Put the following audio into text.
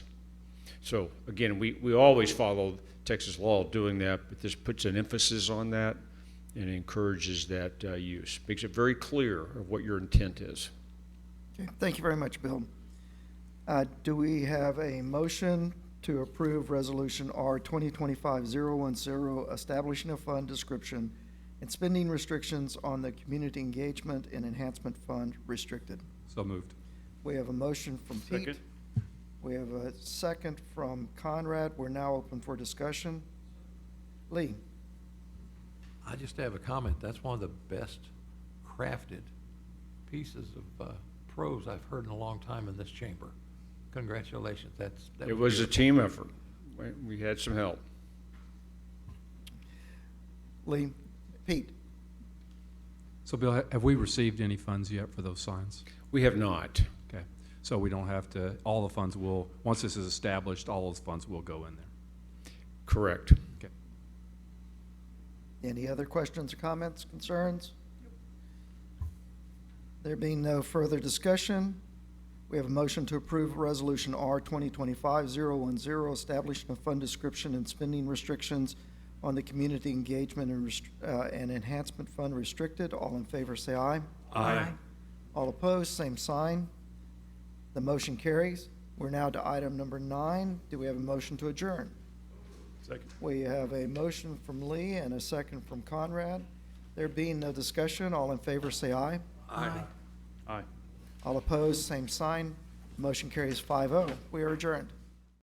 So again, we, we always follow Texas law doing that, but this puts an emphasis on that and encourages that uh, use. Makes it very clear of what your intent is. Okay, thank you very much, Bill. Uh, Do we have a motion to approve Resolution R 2025-010, establishing a fund description and spending restrictions on the Community Engagement and Enhancement Fund restricted? So moved. We have a motion from Pete. Second. We have a second from Conrad. We're now open for discussion. Lee? I just have a comment. That's one of the best crafted pieces of uh, prose I've heard in a long time in this chamber. Congratulations. That's. that It was a beautiful. team effort. We- We had some help. Lee? Pete? So Bill, ha- have we received any funds yet for those signs? We have not. Okay, so we don't have to, all the funds will, once this is established, all those funds will go in there. Correct. Any other questions or comments, concerns? There being no further discussion, we have a motion to approve Resolution R 2025-010, establishing a fund description and spending restrictions on the Community Engagement and Rest- uh, and Enhancement Fund restricted. All in favor, say aye. Aye. All opposed, same sign. The motion carries. We're now to item number nine. Do we have a motion to adjourn? Second. We have a motion from Lee and a second from Conrad. There being no discussion, all in favor say aye. Aye. Aye. All opposed, same sign. Motion carries 5-0. oh. We are adjourned.